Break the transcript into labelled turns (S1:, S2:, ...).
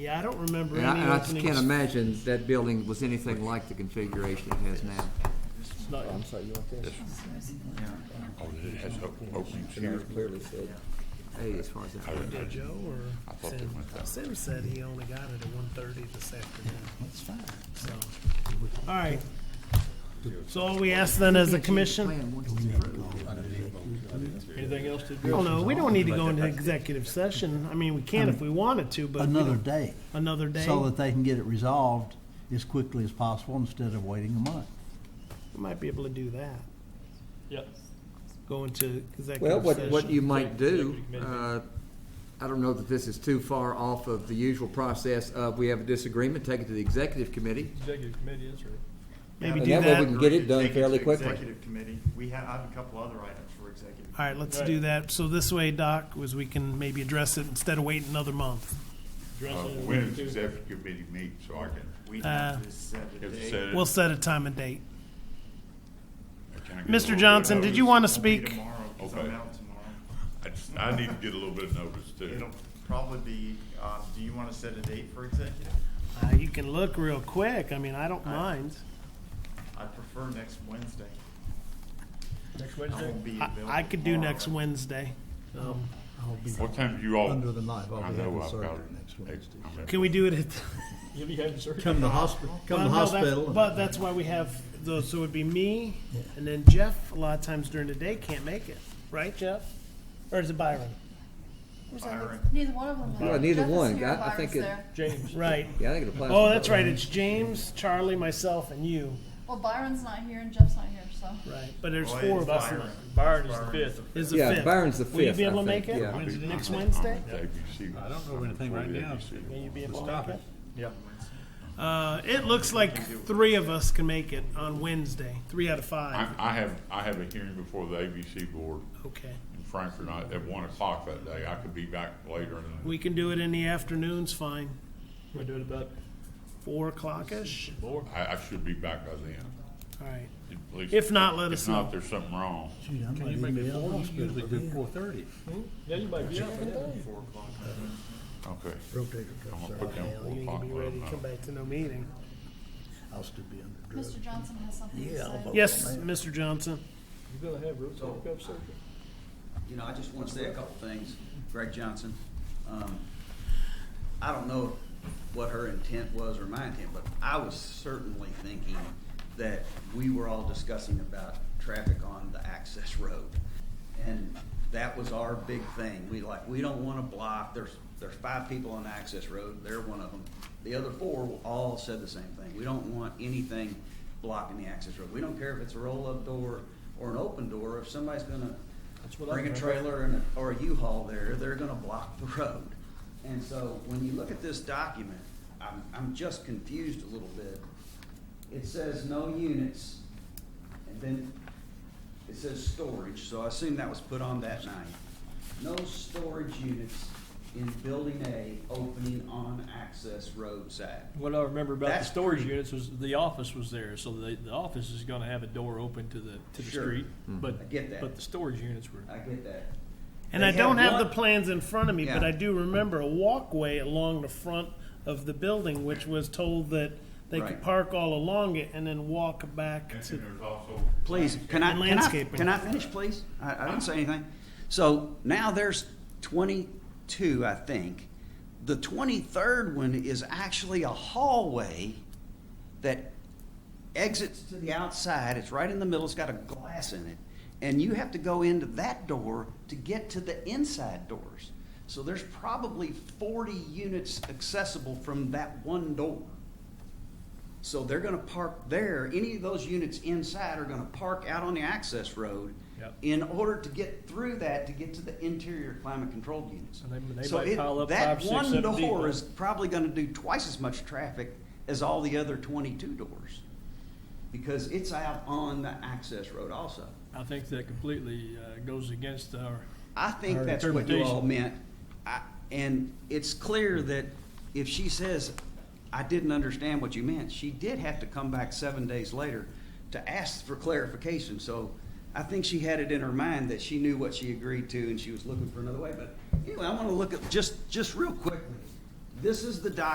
S1: Yeah, I don't remember
S2: And I,
S1: any
S2: and I just can't
S1: openings.
S2: imagine that building was anything like the configuration it has now.
S1: Not-
S2: I'm sorry, you want this?
S3: Oh, it has o- openings here.
S2: clearly said eight as far as
S3: I,
S2: that.
S3: I,
S4: Did Joe
S3: I
S4: or
S3: thought they
S4: Sim?
S3: went that
S4: Sim said he only got it at one thirty this afternoon. That's fine. So,
S1: All right. So all we ask then as a commission,
S2: Plan once it's approved.
S1: anything else to do? No, we don't need to go into executive session. I mean, we can if we wanted to, but. we
S5: another
S1: don't-
S5: day,
S1: Another day.
S5: so that they can get it resolved as quickly as possible instead of waiting a month.
S1: We might be able to do that.
S6: Yep.
S1: Go into
S2: Well,
S1: executive
S2: what, what
S1: session.
S2: you might do,
S6: Executive
S2: uh, I don't know that this is too far off of the usual process of we have a disagreement, take it to the executive committee.
S6: Executive committee is right.
S1: Maybe
S2: And
S1: do
S2: that way we
S1: that.
S2: can
S1: All
S2: get it done
S7: Take
S2: fairly
S7: to
S2: quickly.
S7: Executive committee, we have, I have a couple other items for executive.
S1: right, let's do that. So this way, Doc, was we can maybe address it instead of waiting another month.
S6: Dress
S3: Uh,
S6: on it,
S3: When
S6: we
S3: is
S6: do.
S3: executive committee meet, so I can,
S7: We
S1: Uh,
S7: need to set the
S3: if it's
S7: date.
S3: said-
S1: We'll set a time and date.
S3: can I get a little bit
S1: Mr.
S3: of
S1: Johnson, did you
S3: notice?
S1: want to
S7: It'll be
S1: speak?
S7: Tomorrow, 'cause I'm
S3: uh, Okay.
S7: out tomorrow.
S3: I just, I need to get a little bit of notice too.
S7: It'll probably be, uh, do you want to set a date for executive?
S1: Uh, You can look real quick. I mean, I don't mind.
S7: I prefer next Wednesday.
S6: Next
S7: I
S6: Wednesday?
S7: won't be
S1: I-
S7: available.
S1: I could do
S7: tomorrow.
S1: next Wednesday. Um,
S3: What time do you all?
S5: Under the knife, I'll be
S3: I know
S5: having
S3: I've
S5: surgery
S3: got-
S5: next
S3: I-
S5: Wednesday.
S3: I'm at-
S1: Can we do it at?
S6: You'll be having surgery.
S5: Come to hospital,
S1: Well, no, that- But that's why we have those, so it would be me, and then Jeff, a lot of times during the day, can't make it, right, Jeff? Or is it Byron?
S7: Byron,
S8: Neither one of them.
S2: No, neither
S8: Jeff is
S2: one.
S8: here,
S2: I- I
S8: Byron's
S2: think it-
S8: there.
S6: James.
S1: Right.
S2: Yeah, I think it applies. to
S1: Oh, that's
S2: both.
S1: right, it's James, Charlie, myself, and you,
S8: Well, Byron's not here and Jeff's not here, so.
S1: right, but there's
S7: Well,
S1: four
S7: it's
S1: of us. in
S7: Oh, Byron.
S1: it.
S6: Byron is the
S7: Byron is
S6: fifth.
S1: Is the
S2: Yeah,
S1: fifth.
S2: Byron's the
S1: Will you
S2: fifth,
S1: be
S2: I
S1: able to
S2: think,
S1: make it?
S2: yeah.
S1: When's
S3: I'll be-
S1: Next
S3: I'm at-
S1: Wednesday?
S3: I'm at ABC.
S4: I don't know anything right now.
S1: Will you be able to
S4: Stop
S1: make
S4: it.
S1: it?
S6: Yeah.
S1: Uh, it looks like three of us can make it on Wednesday, three out of
S3: I,
S1: five,
S3: I have, I have a hearing before the ABC board
S1: okay.
S3: in Frankfurt night at one o'clock that day. I could be back later and
S1: We can do it in the afternoons, fine,
S6: We're doing about
S1: four o'clock-ish,
S6: four.
S3: I, I should be back by then.
S1: all right.
S3: At least-
S1: If not, let us
S3: If not,
S1: know.
S3: there's something wrong.
S5: Can you make it four, you usually do four thirty.
S6: Yeah, you might be out by then.
S7: four o'clock.
S3: Okay.
S5: Rotator
S3: I'm
S5: cuffs
S3: gonna
S5: are,
S3: put down
S1: Hell,
S3: four
S1: You ain't
S3: o'clock.
S1: gonna be ready to come
S3: but, uh,
S1: back to no meeting.
S5: I'll still be under drugs.
S8: Mr. Johnson has something to
S5: Yeah, I'll
S8: say.
S9: Oh,
S5: vote.
S1: Yes, Mr. Johnson.
S6: You're gonna have rotator cuff surgery.
S9: You know, I just want to say a couple things. Greg Johnson, um, I don't know what her intent was or my intent, but I was certainly thinking that we were all discussing about traffic on the access road. And that was our big thing. We like, we don't want to block, there's, there's five people on the access road, they're one of them. The other four all said the same thing. We don't want anything blocking the access road. We don't care if it's a roll-up door or an open door. If somebody's gonna
S6: what I
S9: bring a
S6: remember.
S9: trailer and, a- or a U-Haul there, they're gonna block the road. And so when you look at this document, I'm, I'm just confused a little bit. It says no units, and then it says storage, so I assume that was put on that night. No storage units in building A opening on access road side.
S6: What I remember about the
S9: That's
S6: storage
S9: pretty-
S6: units was the office was there, so the, the office is gonna have a door open to the, to the
S9: Sure. Mm-hmm.
S6: street. But,
S9: I get that.
S6: but the storage units were.
S9: I get that.
S1: And
S9: They
S1: I don't
S9: had
S1: have the
S9: one-
S1: plans in front of me, but
S9: Yeah.
S1: I do remember a walkway along the front of the building, which was told that they could
S9: Right.
S1: park all along it and then walk back
S3: And
S1: to.
S3: there's also.
S9: Please, can I,
S1: And
S9: can I,
S1: landscaping.
S9: can I finish, please? I, I didn't say anything. So now there's twenty-two, I think. The twenty-third one is actually a hallway that exits to the outside. It's right in the middle. It's got a glass in it. And you have to go into that door to get to the inside doors. So there's probably forty units accessible from that one door. So they're gonna park there, any of those units inside are gonna park out on the access road
S6: Yep.
S9: in order to get through that, to get to the interior climate controlled units.
S6: And they- they
S9: So
S6: might
S9: it-
S6: pile up five, six, seven
S9: That one
S6: deep,
S9: door
S6: right?
S9: is probably gonna do twice as much traffic as all the other twenty-two doors. Because it's out on the access road also.
S6: I think that completely uh, goes against our
S9: I think
S6: Her
S9: that's what you all
S6: interpretation.
S9: meant. I- And it's clear that if she says, I didn't understand what you meant, she did have to come back seven days later to ask for clarification. So I think she had it in her mind that she knew what she agreed to and she was looking for another way. But anyway, I want to look at, just, just real quickly, this is the document